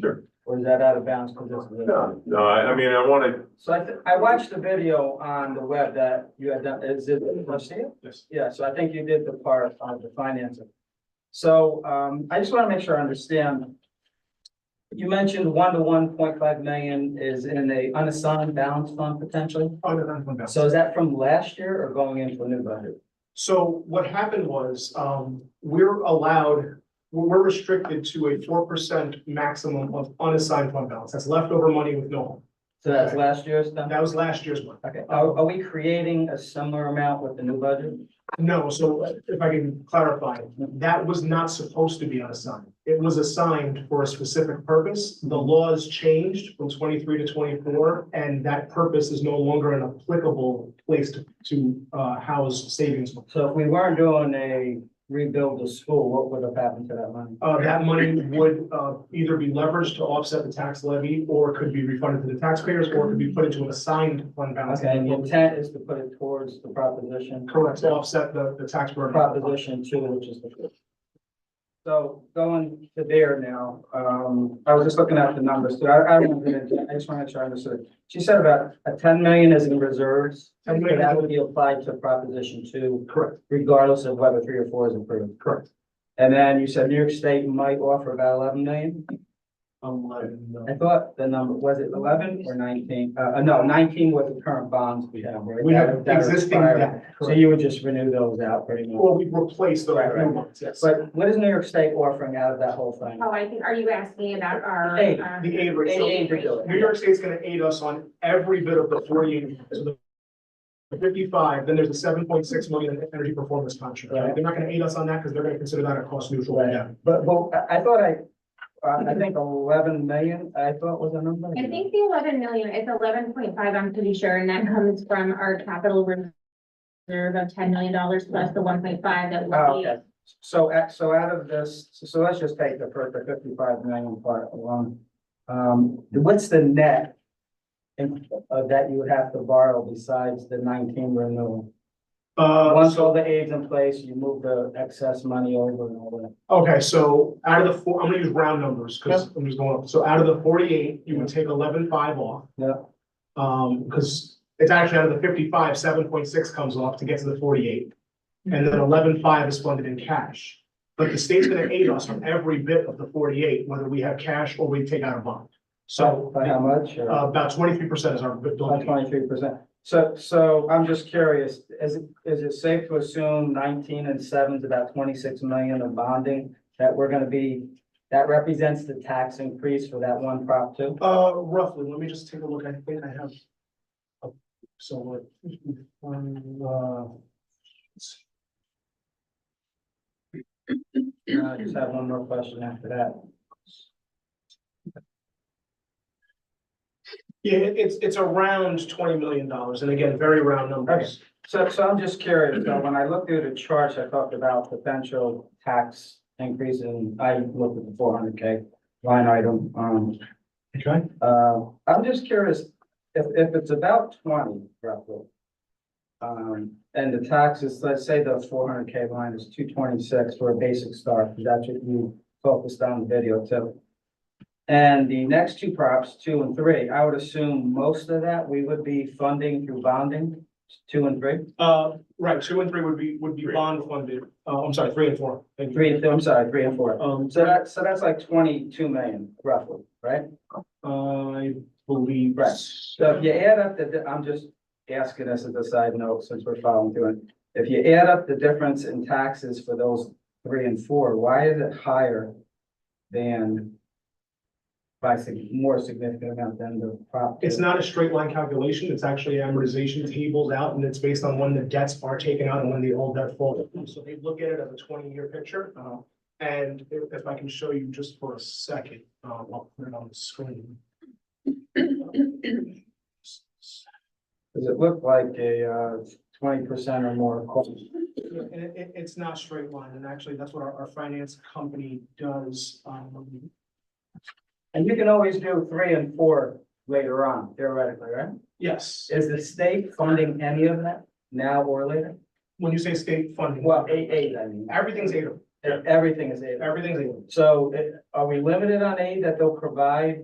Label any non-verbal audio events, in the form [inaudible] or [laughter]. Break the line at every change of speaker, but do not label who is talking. Sure.
Or is that out of bounds because it's?
No, no, I, I mean, I wanted,
So I, th- I watched the video on the web that you had done, is it Garcia?
Yes.
Yeah, so I think you did the part on the financing. So, um, I just want to make sure I understand. You mentioned one to one point five million is in a unassigned balance fund potentially.
Oh, no, no, no, no.
So is that from last year or going into a new budget?
So what happened was, um, we're allowed, we're we're restricted to a four percent maximum of unassigned fund balance. That's leftover money with no home.
So that's last year's then?
That was last year's one.
Okay, are, are we creating a similar amount with the new budget?
No, so if I can clarify, that was not supposed to be unassigned. It was assigned for a specific purpose. The laws changed from twenty-three to twenty-four, and that purpose is no longer an applicable place to, to, uh, house savings.
So if we weren't doing a rebuild of school, what would have happened to that money?
Uh, that money would, uh, either be leveraged to offset the tax levy, or could be refunded to the taxpayers, or could be put into an assigned fund balance.
Okay, and the intent is to put it towards the proposition,
Correct, to offset the, the tax burden.
proposition two, which is the. So going to there now, um, I was just looking at the numbers, so I, I don't get into, I just wanna try to understand. She said about a ten million is in reserves,
$10
and
million.
that would be applied to proposition two,
Correct,
regardless of whether three or four is approved.
correct.
And then you said New York State might offer about eleven million? Um,
Eleven,
I thought the number, was it eleven or nineteen? Uh, uh, no, nineteen was the current bonds we have, right?
We
That-
have
that are
existing
expiring.
debt,
So
correct.
you would just renew those out pretty much.
Or we replace the
Right, right.
new ones, yes.
But what is New York State offering out of that whole thing?
Oh, I think, are you asking about our?
Aid,
uh,
The aid rate.
Aid.
So New York State's gonna aid us on every bit of the forty, so the fifty-five, then there's a seven point six million in energy performance contract.
Right.
They're not gonna aid us on that, because they're gonna consider that a cost neutral.
Right.
Yeah.
But, but I, I thought I, uh, I think eleven million, I thought was the number.
I think the eleven million, it's eleven point five, I'm pretty sure, and that comes from our capital reserve of ten million dollars plus the one point five that
Oh,
will be.
okay. So, at- so out of this, so- so let's just take the first, the fifty-five million part alone. Um, what's the net in- of that you would have to borrow besides the nineteen renewal?
Uh,
Once
so,
all the aids in place, you move the excess money over and all that.
okay, so out of the four, I'm gonna use round numbers, because I'm just going up. So out of the forty-eight, you would take eleven-five off.
Yeah.
Um, because it's actually out of the fifty-five, seven point six comes off to get to the forty-eight. And then eleven-five is funded in cash. But the state's gonna aid us on every bit of the forty-eight, whether we have cash or we take out a bond. So,
By how much? or-
uh, about twenty-three percent is our
About
building. aid.
twenty-three percent. So, so I'm just curious, is it, is it safe to assume nineteen and seven is about twenty-six million of bonding? That we're gonna be, that represents the tax increase for that one prop too?
Uh, roughly, let me just take a look, I think I have. uh, So what? um, uh,
I just have one more question after that.
Yeah, it- it's, it's around twenty million dollars, and again, very round numbers.
So, so I'm just curious, though, when I looked through the charts, I talked about potential tax increase and I looked at the four hundred K line item, um,
Okay.
Uh, I'm just curious, if, if it's about twenty roughly. Um, and the taxes, let's say the four hundred K line is two twenty-six for a basic start, 'cause that's what you focused on in the video too. And the next two props, two and three, I would assume most of that we would be funding through bonding, two and three?
Uh, right, two and three would be, would be bond funded, uh, I'm sorry, three and four. Thank you.
Three, and- I'm sorry, three and four.
Um,
So that, so that's like twenty-two million roughly, right?
I believe.
Right. So if you add up the, di- I'm just asking this as a side note, since we're following through it. If you add up the difference in taxes for those three and four, why is it higher than by sig- more significant amount than the prop?
It's not a straight line calculation, it's actually amortization tables out, and it's based on when the debts are taken out and when the old debt falls. So they look at it as a twenty-year picture, uh, and if if I can show you just for a second, uh, I'll put it on
[clears throat]
the screen. Uh,
Does it look like a uh, twenty percent or more cost?
Yeah, And it, it- it's not straight line, and actually, that's what our, our finance company does, um,
And you can always do three and four later on theoretically, right?
yes,
Is the state funding any of that now or later?
when you say state funding.
Well, eight, eight, I mean.
Everything's aidable.
Everything is aid.
Everything's in.
So eh, are we limited on aid that they'll provide